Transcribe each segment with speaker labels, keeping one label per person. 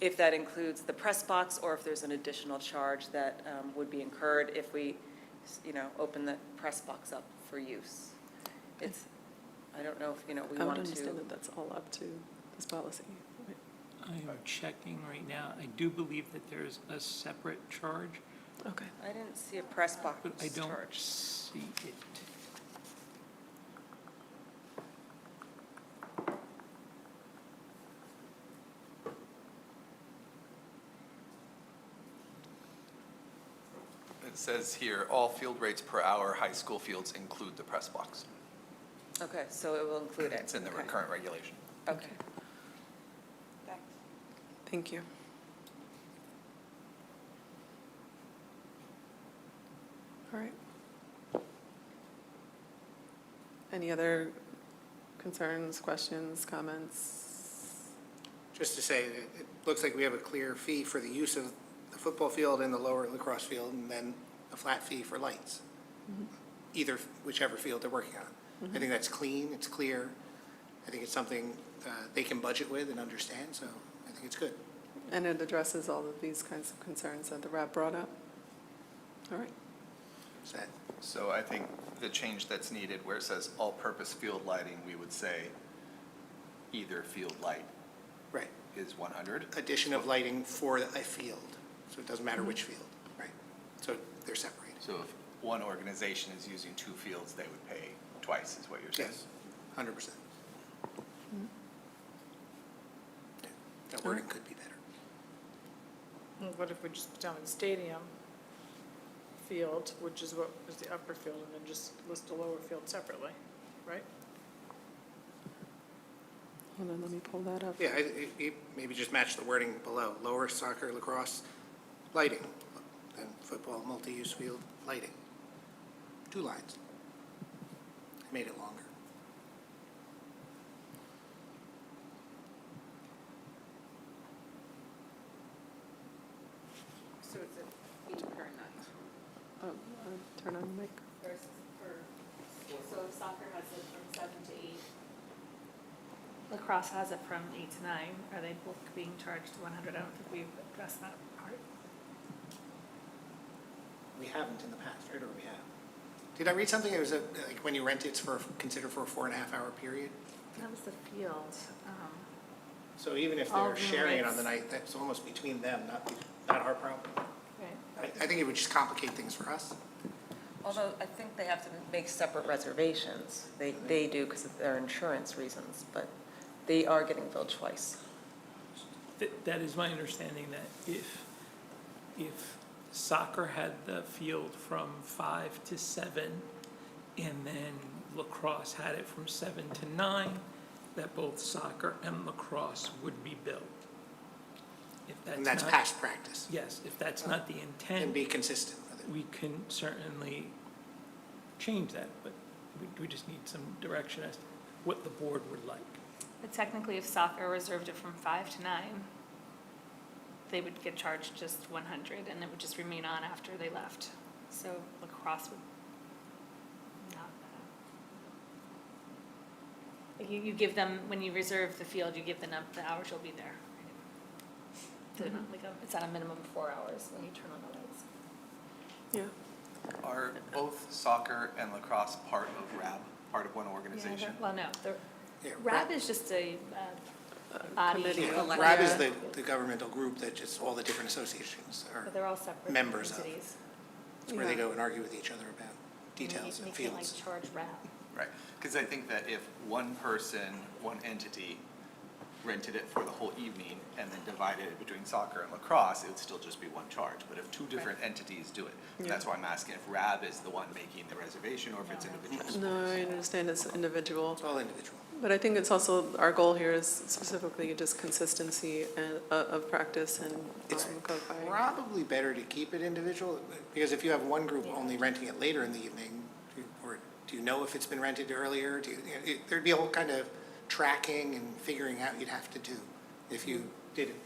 Speaker 1: if that includes the press box or if there's an additional charge that um, would be incurred if we, you know, open the press box up for use. It's, I don't know if, you know, we
Speaker 2: I would
Speaker 1: want
Speaker 2: understand
Speaker 1: to,
Speaker 2: that that's all up to this policy.
Speaker 3: I'm checking right now. I do believe that there's a separate charge,
Speaker 2: Okay.
Speaker 1: I didn't see a press box
Speaker 3: but I don't
Speaker 1: charge.
Speaker 3: see it.
Speaker 4: It says here, all field rates per hour, high school fields include the press box.
Speaker 1: Okay, so it will include it.
Speaker 4: It's in the
Speaker 1: Okay.
Speaker 4: current regulation.
Speaker 1: Okay.
Speaker 2: Thank you. All right. Any other concerns, questions, comments?
Speaker 5: Just to say, it it looks like we have a clear fee for the use of the football field and the lower lacrosse field, and then a flat fee for lights, either, whichever field they're working on. I think that's clean, it's clear, I think it's something uh, they can budget with and understand, so I think it's good.
Speaker 2: And it addresses all of these kinds of concerns that the rep brought up? All right,
Speaker 5: Is that,
Speaker 4: So I think the change that's needed where it says all-purpose field lighting, we would say either field light
Speaker 5: right,
Speaker 4: is 100.
Speaker 5: addition of lighting for a field, so it doesn't matter which field, right? So they're separated,
Speaker 4: So if one organization is using two fields, they would pay twice, is what you're saying?
Speaker 5: yes, hundred percent. That wording could be better.
Speaker 6: Well, What if we just put down stadium field, which is what was the upper field, and then just list the lower field separately, right?
Speaker 2: hold on, let me pull that up.
Speaker 5: Yeah, I- I- I- maybe just match the wording below, lower soccer, lacrosse, lighting, and football, multi-use field, lighting. Two lines. I Made it longer.
Speaker 1: So it's a fee per night.
Speaker 2: Oh, uh, Turn on the mic.
Speaker 7: versus per, so if soccer has it from seven to eight. Lacrosse has it from eight to nine, are they both being charged one hundred? I don't think we've addressed that part.
Speaker 5: We haven't in the past, right, or we have? Did I read something, it was a- like, when you rent, it's for, considered for a four and a half hour period?
Speaker 7: That was the field, um,
Speaker 5: So even if
Speaker 7: All
Speaker 3: Oh,
Speaker 5: they're sharing it on the
Speaker 7: roommates.
Speaker 5: night, that's almost between them, not, be- not our problem.
Speaker 7: right?
Speaker 5: I, I think it would just complicate things for us.
Speaker 1: Although I think they have to make separate reservations. They, they do because of their insurance reasons, but they are getting billed twice.
Speaker 3: Th- That is my understanding that if, if soccer had the field from five to seven and then lacrosse had it from seven to nine, that both soccer and lacrosse would be billed. If that's
Speaker 5: And that's
Speaker 3: not-
Speaker 5: past practice,
Speaker 3: Yes, if that's not the intent.
Speaker 5: and be consistent with it.
Speaker 3: we can certainly change that, but we, we just need some direction as to what the board would like.
Speaker 7: But technically, if soccer reserved it from five to nine, they would get charged just one hundred, and it would just remain on after they left. So lacrosse would not. Like you, you give them, when you reserve the field, you give them up the hours you'll be there. They're not like a- It's at a minimum of four hours when you turn on the lights.
Speaker 2: Yeah,
Speaker 4: Are both soccer and lacrosse part of RAB, part of one
Speaker 7: Yeah,
Speaker 4: organization?
Speaker 7: they're- Well, no, the,
Speaker 5: Yeah,
Speaker 7: RAB is just a, uh, body.
Speaker 2: committee.
Speaker 5: Yeah, RAB is the, the governmental group that just, all the different associations
Speaker 7: but
Speaker 5: are,
Speaker 7: uh, they're all separate
Speaker 5: Members of.
Speaker 7: entities.
Speaker 5: it's where they
Speaker 2: Yeah.
Speaker 5: go and argue with each other about
Speaker 7: And you-
Speaker 5: details and
Speaker 7: You can't like
Speaker 5: fields.
Speaker 7: charge RAB.
Speaker 4: Right, because I think that if one person, one entity rented it for the whole evening and then divided it between soccer and lacrosse, it would still just be one charge. But if two different entities do it, that's why I'm asking if RAB is the one making the reservation or if it's individuals.
Speaker 2: no, I understand it's individual.
Speaker 5: It's all individual.
Speaker 2: But I think it's also, our goal here is specifically just consistency and, uh, of practice and
Speaker 5: It's
Speaker 2: um, codifying.
Speaker 5: Probably better to keep it individual, because if you have one group only renting it later in the evening, do- or do you know if it's been rented earlier? Do you, it- there'd be a whole kind of tracking and figuring out you'd have to do if you did it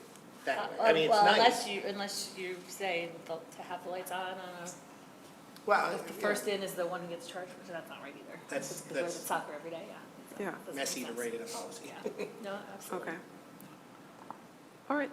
Speaker 5: that way.
Speaker 7: Uh,
Speaker 5: I mean, it's
Speaker 7: Well, unless
Speaker 5: nice.
Speaker 7: you, unless you say the- to have the lights on, on a-
Speaker 5: Well,
Speaker 7: if the first in is the one who gets charged, which that's not right either.
Speaker 5: Oh, That's-
Speaker 7: Because
Speaker 5: that's-
Speaker 7: it's soccer every day, yeah.
Speaker 2: Yeah,
Speaker 7: Doesn't make
Speaker 5: messy to
Speaker 7: sense.
Speaker 5: write in a policy.
Speaker 7: Yeah, no, absolutely.
Speaker 2: okay. All right,